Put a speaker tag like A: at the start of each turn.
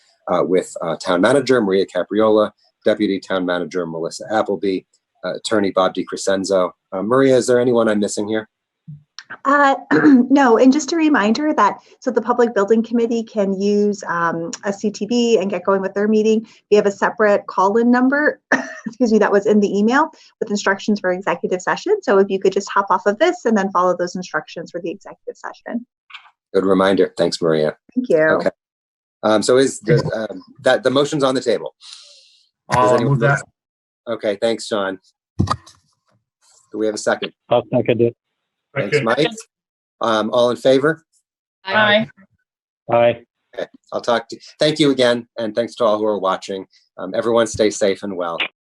A: uh, with uh, Town Manager Maria Capriola, Deputy Town Manager Melissa Appleby, uh, Attorney Bob DiCrescenzo. Uh, Maria, is there anyone I'm missing here?
B: Uh, No, and just a reminder that, so the Public Building Committee can use um, a CTB and get going with their meeting. We have a separate call-in number, excuse me, that was in the email with instructions for executive session. So if you could just hop off of this and then follow those instructions for the executive session.
A: Good reminder. Thanks, Maria.
B: Thank you.
A: Okay. Um, so is the, um, that the motion's on the table? Does
C: I'll
A: anyone-
C: move that.
A: Okay, thanks, Sean. Do we have a second?
D: I'll second it.
A: Thanks,
C: Okay.
A: Mike. Um, all in favor?
C: Aye.
D: Aye.
A: I'll talk to, thank you again, and thanks to all who are watching. Um, everyone stay safe and well.